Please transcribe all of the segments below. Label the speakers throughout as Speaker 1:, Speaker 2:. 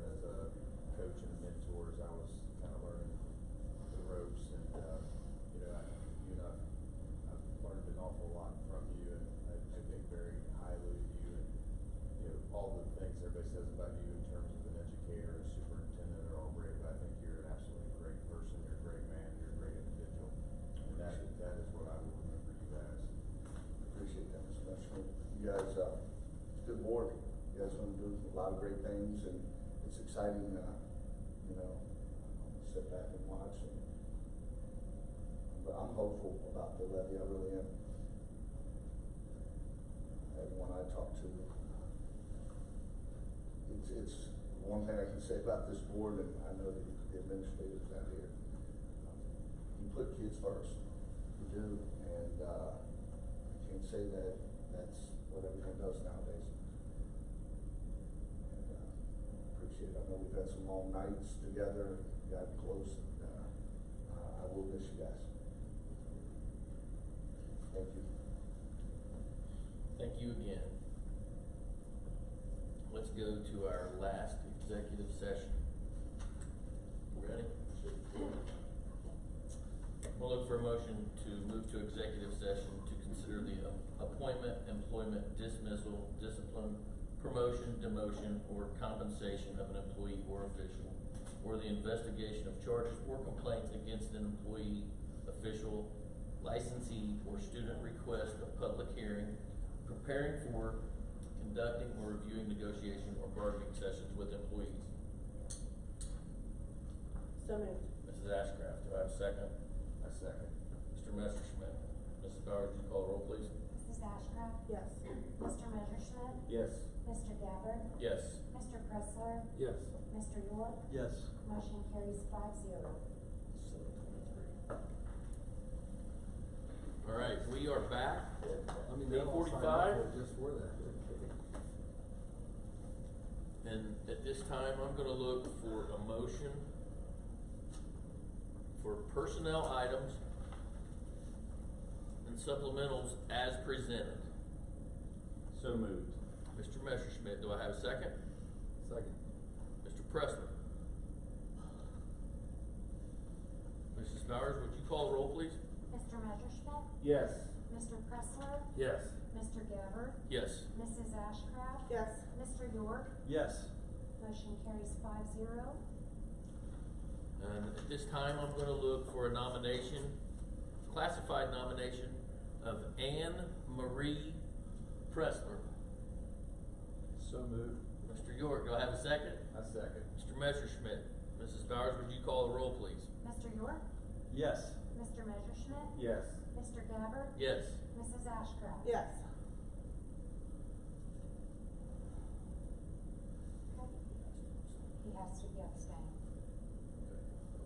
Speaker 1: uh, all the things everybody says about you in terms of an educator and superintendent are all great, but I think you're an absolutely great person, you're a great man, you're a great individual. And that, that is what I will remember you as.
Speaker 2: Appreciate that, Mr. Rushmore. You guys, uh, it's a good board. You guys wanna do a lot of great things and it's exciting, uh, you know, uh, sit back and watch and but I'm hopeful about the levy, I really am. Everyone I talk to, it's, it's one thing I can say about this board and I know the the administrators out here. um, You put kids first, you do, and, uh, I can't say that that's what everyone does nowadays. And uh, Appreciate it. I know we've had some long nights together, got close, and uh, I- I will miss you guys. Thank you.
Speaker 3: Thank you again. Let's go to our last executive session. Ready? We'll look for a motion to move to executive session to consider the a- appointment, employment, dismissal, discipline, promotion, demotion, or compensation of an employee or official, or the investigation of charges or complaints against an employee, official, licensee, or student request of public hearing, preparing for, conducting, or reviewing negotiation or bargaining sessions with employees.
Speaker 4: So moved.
Speaker 3: Mrs. Ashcraft, do I have a second?
Speaker 1: I second.
Speaker 3: Mr. Messerschmidt. Mrs. Bowers, would you call the roll, please?
Speaker 5: Mrs. Ashcraft?
Speaker 4: Yes.
Speaker 5: Mr. Messerschmidt?
Speaker 6: Yes.
Speaker 5: Mr. Gabbard?
Speaker 3: Yes.
Speaker 5: Mr. Pressler?
Speaker 6: Yes.
Speaker 5: Mr. York?
Speaker 6: Yes.
Speaker 5: Motion carries five zero.
Speaker 3: Seven twenty-three. All right, we are back.
Speaker 6: I mean, they all signed up for-
Speaker 3: 8:45?
Speaker 6: just for that.
Speaker 3: And at this time, I'm gonna look for a motion for personnel items and supplementals as presented.
Speaker 6: So moved.
Speaker 3: Mr. Messerschmidt, do I have a second?
Speaker 6: Second.
Speaker 3: Mr. Pressler? Mrs. Bowers, would you call the roll, please?
Speaker 5: Mr. Messerschmidt?
Speaker 6: Yes.
Speaker 5: Mr. Pressler?
Speaker 6: Yes.
Speaker 5: Mr. Gabbard?
Speaker 3: Yes.
Speaker 5: Mrs. Ashcraft?
Speaker 4: Yes.
Speaker 5: Mr. York?
Speaker 6: Yes.
Speaker 5: Motion carries five zero.
Speaker 3: And Uh, at this time, I'm gonna look for a nomination, classified nomination of Anne Marie Pressler.
Speaker 6: So moved.
Speaker 3: Mr. York, do I have a second?
Speaker 6: I second.
Speaker 3: Mr. Messerschmidt, Mrs. Bowers, would you call the roll, please?
Speaker 5: Mr. York?
Speaker 6: Yes.
Speaker 5: Mr. Messerschmidt?
Speaker 6: Yes.
Speaker 5: Mr. Gabbard?
Speaker 3: Yes.
Speaker 5: Mrs. Ashcraft?
Speaker 4: Yes.
Speaker 5: Okay. He has to be abstained.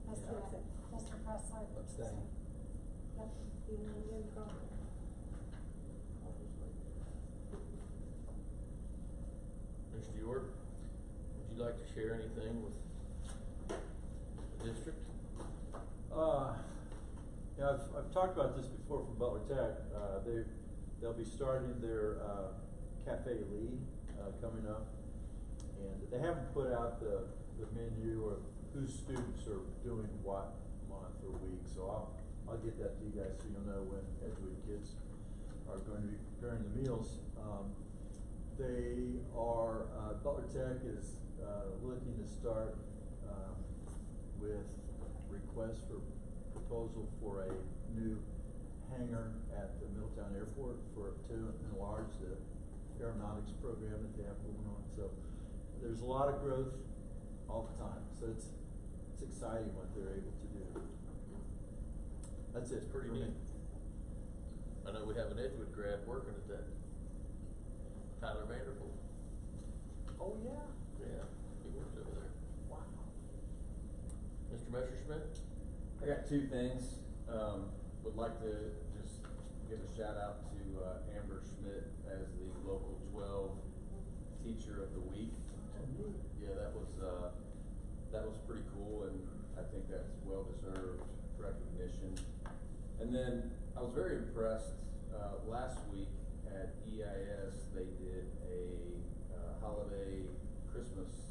Speaker 5: Mr.
Speaker 4: Yeah.
Speaker 5: Mr. Pressler?
Speaker 6: Abstain.
Speaker 5: Yep.
Speaker 4: You need to get going.
Speaker 3: Mr. York, would you like to share anything with the district?
Speaker 7: Uh, yeah, I've, I've talked about this before from Butler Tech. Uh, they, they'll be starting their, uh, Cafe Lee, uh, coming up. And they haven't put out the, the menu or whose students are doing what month or week, so I'll, I'll get that to you guys so you'll know when Edgewood kids are going to be preparing the meals. Um, they are, uh, Butler Tech is, uh, looking to start, um, with request for proposal for a new hangar at the Middletown Airport for, to enlarge the aeronautics program that they have going on, so there's a lot of growth all the time, so it's, it's exciting what they're able to do. That's it
Speaker 3: It's
Speaker 7: for
Speaker 3: pretty
Speaker 7: me.
Speaker 3: neat. I know we have an Edgewood grad working at that. Tyler Vanderpool.
Speaker 7: Oh, yeah?
Speaker 3: Yeah, he works over there.
Speaker 7: Wow.
Speaker 3: Mr. Messerschmidt?
Speaker 8: I got two things. Um, would like to just give a shout out to uh, Amber Schmidt as the local twelve teacher of the week. Yeah, that was, uh, that was pretty cool and I think that's well deserved recognition. And then I was very impressed, uh, last week E at EIS, they did a, uh, holiday Christmas